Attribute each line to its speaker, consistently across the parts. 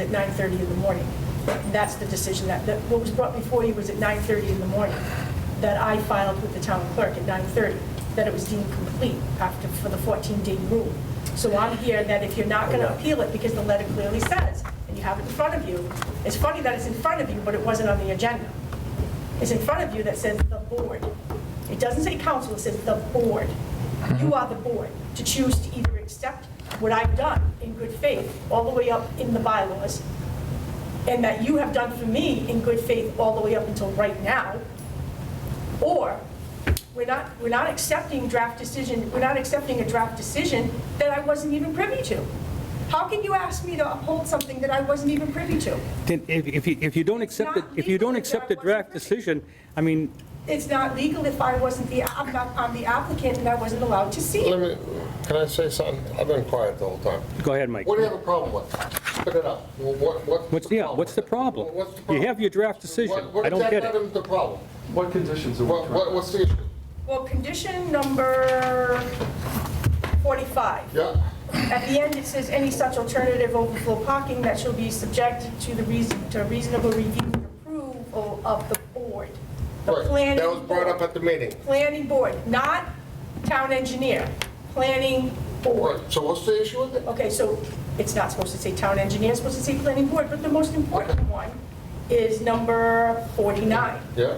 Speaker 1: at 9:30 in the morning. And that's the decision that, that what was brought before you was at 9:30 in the morning, that I filed with the town clerk at 9:30, that it was deemed complete after, for the 14-day rule. So I'm here that if you're not going to appeal it, because the letter clearly says, and you have it in front of you, it's funny that it's in front of you, but it wasn't on the agenda. It's in front of you that says the board. It doesn't say council, it says the board. You are the board to choose to either accept what I've done in good faith, all the way up in the bylaws, and that you have done for me in good faith all the way up until right now, or we're not, we're not accepting draft decision, we're not accepting a draft decision that I wasn't even privy to. How can you ask me to uphold something that I wasn't even privy to?
Speaker 2: Then if, if you, if you don't accept, the- if you don't accept the draft decision, I mean,
Speaker 1: It's not legal if I wasn't the, I'm not- I'm the applicant and I wasn't allowed to see
Speaker 3: Let
Speaker 1: it.
Speaker 3: me, can I say something? I've been quiet the whole time.
Speaker 2: go ahead, Mike.
Speaker 3: What do you have a problem with? Pick it up. Well, What, what?
Speaker 2: What's, yeah, what's the problem?
Speaker 3: What's the
Speaker 2: You
Speaker 3: problem?
Speaker 2: have your draft decision.
Speaker 3: What- what
Speaker 2: I don't get
Speaker 3: exactly
Speaker 2: it.
Speaker 3: is the problem?
Speaker 4: What conditions are we
Speaker 3: What, what,
Speaker 4: trying?
Speaker 3: what's the issue?
Speaker 1: Well, condition number 45.
Speaker 3: Yeah?
Speaker 1: At the end, it says, "Any such alternative overflow parking that shall be subjected to the reason, to reasonable review and approval of the board." The
Speaker 3: Right.
Speaker 1: planning
Speaker 3: That was brought up
Speaker 1: board.
Speaker 3: at the meeting.
Speaker 1: Planning board, not town engineer, planning board.
Speaker 3: Right, so what's the issue with it?
Speaker 1: Okay, so it's not supposed to say town engineer, it's supposed to say planning board, but the most important one is number 49.
Speaker 3: Yeah?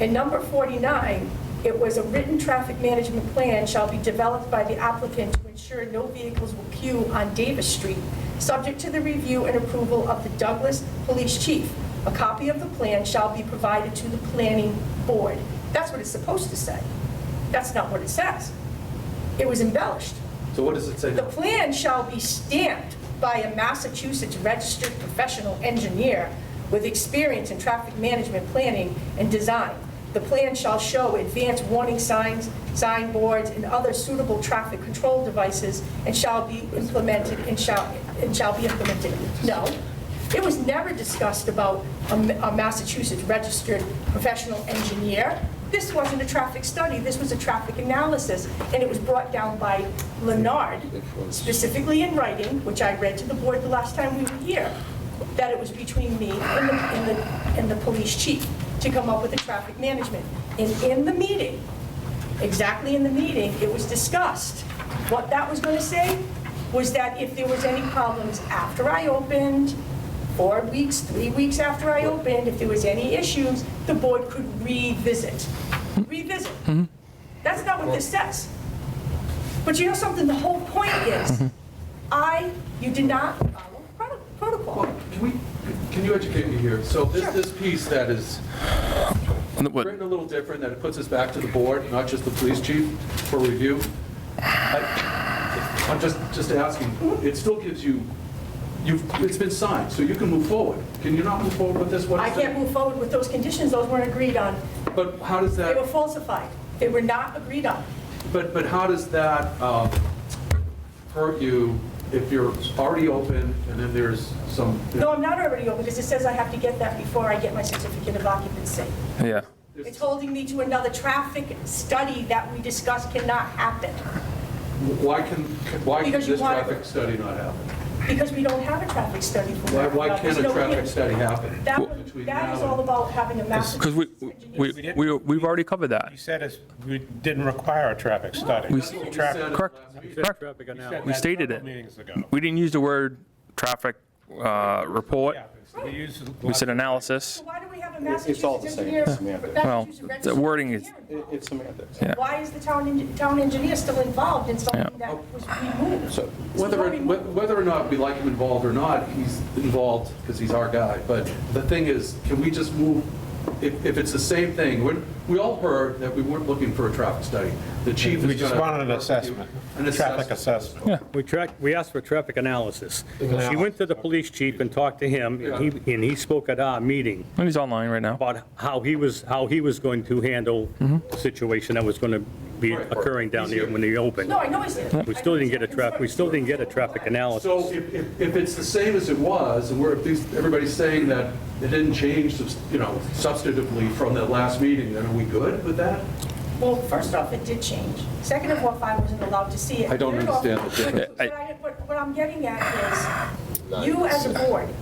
Speaker 1: In number 49, it was a written traffic management plan shall be developed by the applicant to ensure no vehicles will queue on Davis Street, subject to the review and approval of the Douglas Police Chief. A copy of the plan shall be provided to the planning board. That's what it's supposed to say. That's not what it says. It was embellished.
Speaker 4: So what does it say
Speaker 1: The
Speaker 4: now?
Speaker 1: plan shall be stamped by a Massachusetts registered professional engineer with experience in traffic management planning and design. The plan shall show advanced warning signs, signboards, and other suitable traffic control devices, and shall be implemented, and shall, and shall be implemented. No, it was never discussed about a Ma- a Massachusetts registered professional engineer. This wasn't a traffic study, this was a traffic analysis, and it was brought down by Leonard, specifically in writing, which I read to the board the last time we were here, that it was between me and the, and the, and the police chief to come up with a traffic management. And in the meeting, exactly in the meeting, it was discussed. What that was going to say was that if there was any problems after I opened, four weeks, three weeks after I opened, if there was any issues, the board could revisit. Revisit. That's not what this says. But you know something, the whole point is, I, you did not follow prot- protocol.
Speaker 4: Well, Can we, can you educate me here? So this,
Speaker 1: Sure.
Speaker 4: this piece that is
Speaker 5: And what-
Speaker 4: written a little different, that it puts us back to the board, not just the police chief for review. I- I'm just, just asking, it still gives you, you've, it's been signed, so you can move forward. Can you not move forward with this? What
Speaker 1: I
Speaker 4: is it?
Speaker 1: can't move forward with those conditions, those weren't agreed on.
Speaker 4: But how does
Speaker 1: They were
Speaker 4: that,
Speaker 1: falsified. They were not agreed on.
Speaker 4: but, but how does that um, hurt you if you're already open and then there's some,
Speaker 1: No, I'm not already open, because it says I have to get that before I get my certificate of occupancy.
Speaker 5: Yeah.
Speaker 1: It's holding me to another traffic study that we discussed cannot happen,
Speaker 4: why can, why can
Speaker 1: Because you
Speaker 4: this
Speaker 1: want-
Speaker 4: traffic study not happen?
Speaker 1: because we don't have a traffic study for
Speaker 4: Why,
Speaker 1: that.
Speaker 4: why can't
Speaker 1: There's
Speaker 4: a
Speaker 1: no
Speaker 4: traffic
Speaker 1: hit.
Speaker 4: study happen?
Speaker 1: That,
Speaker 4: between
Speaker 1: that
Speaker 4: now
Speaker 1: is all
Speaker 4: and-
Speaker 1: about having a master.
Speaker 5: Because we, we, we, we've already covered that.
Speaker 6: You said it's- we didn't require a traffic study.
Speaker 5: We-
Speaker 4: That's what we
Speaker 6: Traffic-
Speaker 4: said at the
Speaker 5: Correct.
Speaker 4: last meeting.
Speaker 5: Correct. We stated it.
Speaker 6: Meetings ago.
Speaker 5: We didn't use the word traffic uh, report.
Speaker 6: Yeah, We used.
Speaker 5: We said analysis.
Speaker 1: Why do we have a
Speaker 7: It's all the
Speaker 1: Massachusetts
Speaker 7: same,
Speaker 1: engineer?
Speaker 7: it's semantics.
Speaker 5: Well,
Speaker 1: Massachusetts registered
Speaker 5: the wording is-
Speaker 1: engineer
Speaker 7: It-
Speaker 1: involved?
Speaker 7: It's semantics.
Speaker 5: Yeah.
Speaker 1: Why is the town, en- town engineer still involved in something that was removed?
Speaker 7: So-
Speaker 4: Whether,
Speaker 1: It's not
Speaker 4: wh- whether or not we like him involved or not, he's involved because he's our guy. But the thing is, can we just move, if, if it's the same thing, we, we all heard that we weren't looking for a traffic study. The chief is
Speaker 6: We just
Speaker 4: gonna-
Speaker 6: wanted an assessment,
Speaker 4: An
Speaker 6: traffic
Speaker 4: assessment.
Speaker 6: assessment.
Speaker 2: We track, we asked for traffic analysis. She went to the police chief and talked to him, and he, and he spoke at our meeting
Speaker 5: And he's online right now.
Speaker 2: about how he was, how he was going to handle the situation that was going to be occurring down there when they opened.
Speaker 1: No, I know he's there.
Speaker 2: We still didn't get a traffic, we still didn't get a traffic analysis.
Speaker 4: So if, if, if it's the same as it was, and we're, if these- everybody's saying that it didn't change, subs- you know, substantively from that last meeting, then are we good with that?
Speaker 1: Well, first off, it did change. Second of all, I wasn't allowed to see it.
Speaker 4: I don't
Speaker 1: Third off,
Speaker 4: understand the
Speaker 1: What
Speaker 4: difference.
Speaker 1: what I- what- what I'm getting at is, you as a board